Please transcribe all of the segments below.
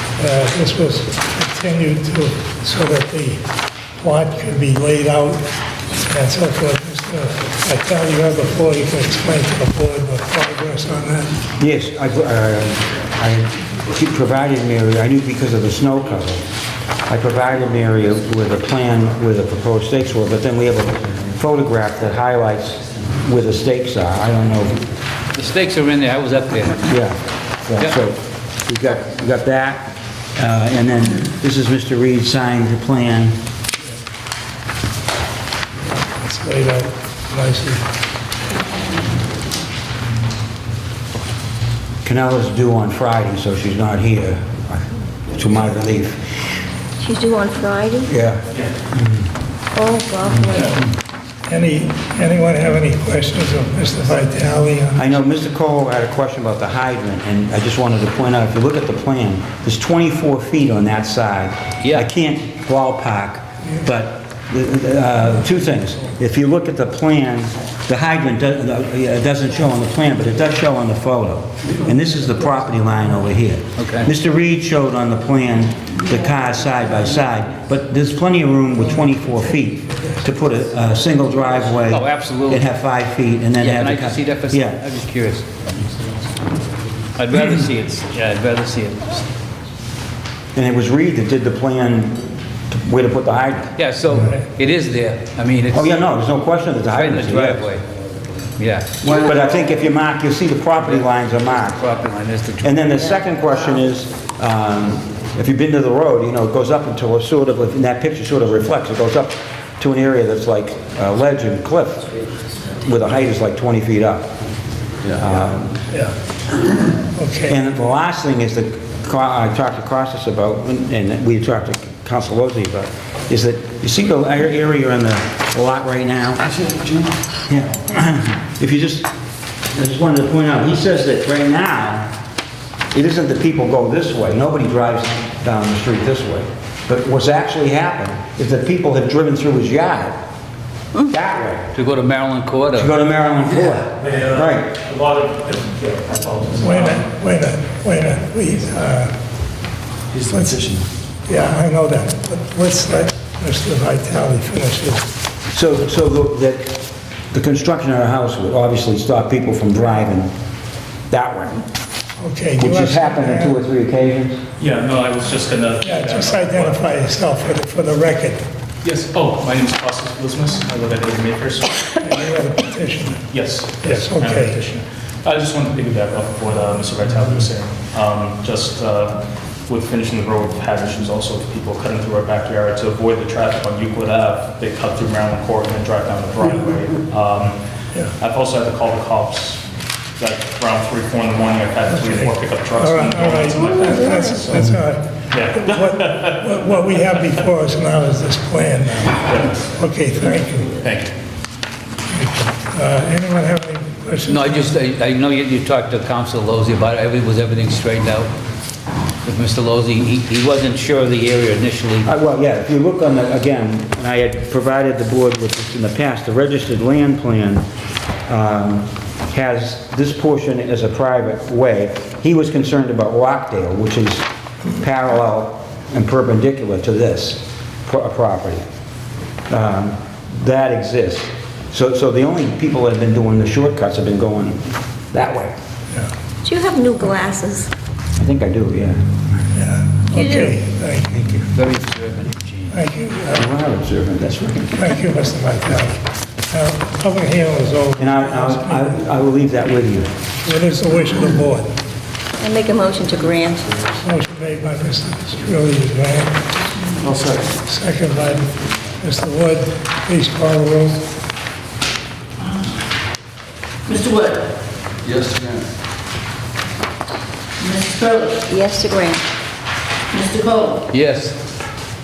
uh, this was continued to, so that the plot could be laid out and so forth. Mr. Vitale, you have the floor, you can explain to the board the progress on that. Yes, I, uh, I she provided Mary, I knew because of the snow cover, I provided Mary with a plan where the proposed stakes were, but then we have a photograph that highlights where the stakes are. I don't know, The stakes are in there, I was up there. yeah. Yeah. Yeah, So we got, we got that, uh, and then this is Mr. Reed signed the plan. It's laid out nicely. Canella's due on Friday, so she's not here, to my relief. She's due on Friday? Yeah. Oh, lovely. Any, anyone have any questions of Mr. Vitale? on- I know Mr. Cole had a question about the hydrant, and I just wanted to point out, if you look at the plan, there's 24 feet on that side. Yeah. I can't ballpark, but uh, two things. If you look at the plan, the hydrant does- uh, doesn't show on the plan, but it does show on the photo. And this is the property line over here. Okay. Mr. Reed showed on the plan the cars side by side, but there's plenty of room with 24 feet to put a a single driveway. Oh, absolutely. And have five feet, and then Yeah, have can the I car- just see that for a Yeah. second? I'm just curious. I'd rather see it, yeah, I'd rather see it. And it was Reed that did the plan to- where to put the hydrant. Yeah, so it is there, I mean, it's Oh, yeah, right no, there's no question that the in hydrant the is there. driveway. Yeah, But I think if you mark, you'll see the property lines are marked. property line is the And then the second question is, um, if you've been to the road, you know, it goes up until a sort of, and that picture sort of reflects, it goes up to an area that's like uh, ledge and cliff, where the height is like 20 feet up. Okay. And the last thing is that Ca- I talked to Costas about, and we talked to Council Lozey about, is that, you see the ar- area in the lot right now? Yeah. If you just, I just wanted to point out, he says that right now, it isn't that people go this way, nobody drives down the street this way. But what's actually happened is that people have driven through his yard, that way, To go to Maryland Court to or go to Maryland Court. Yeah. Right. A lot of, yeah, I apologize. Wait a minute, wait a minute, wait a minute, please. He's transitioning. Yeah, I know that, but let's let Mr. Vitale finish his. So, so the, the- the construction of our house would obviously stop people from driving that way, Okay. do you which has have happened on two or three occasions. Yeah, no, I was just gonna. Yeah, just identify yourself for the, for the record. Yes, oh, my name is Costas Blismus, I live at Eight Acres. You are the petitioner. Yes. Yes, I'm a okay. petitioner. I just wanted to piggyback off of what uh, Mr. Vitale was saying. Um, Just uh, with finishing the road, we've had issues also with people cutting through our backyard to avoid the traffic on Euclid Ave. They cut through Maryland Court and then drive down the Broadway. Um, Yeah. I've also had to call the cops, like around three, four in the morning, I've had three, or four pickup trucks. All right, all going right, into my backyard, that's, so- that's all right. Yeah. What- What, what we have before us now is this plan. Okay, thank you. Thank you. Uh, Anyone have any questions? No, I just, I I know you, you talked to Council Lozey about it, Every- was everything straightened out with Mr. Lozey? He, he wasn't sure of the area initially. Uh, Well, yeah, if you look on the, again, and I had provided the board with this in the past, the registered land plan um, has this portion as a private way. He was concerned about Rockdale, which is parallel and perpendicular to this pro- uh, property. Um, That exists. So, so the only people that have been doing the shortcuts have been going that way. Do you have new glasses? I think I do, yeah. You do. Okay, thank you, Thank you. Very observant, Gene. thank you. Uh, You are observant, that's right. Thank you, Mr. Vitale. Now, Public hearing is over. And I- I, I, I will leave that with you. What is the wish of the board? I make a motion to grant. Motion made by Mr. Strelli, is there? second. Second by Mr. Wood. Please call the roll. Mr. Wood? Yes, ma'am. Mrs. Curly? Yes to grant. Mr. Cole? Yes,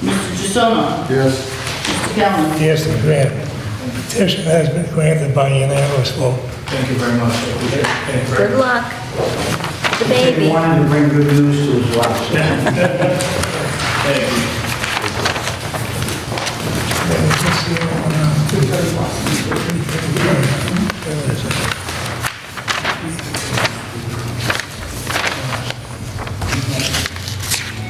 Mr. Jussono? Yes, Mr. Callen? Yes, the grant. Petition has been granted by unanimous vote. Thank you very much. Thank you very Good luck. The He baby. wanted to bring good news to his wife. Thank you. Let me just see, um,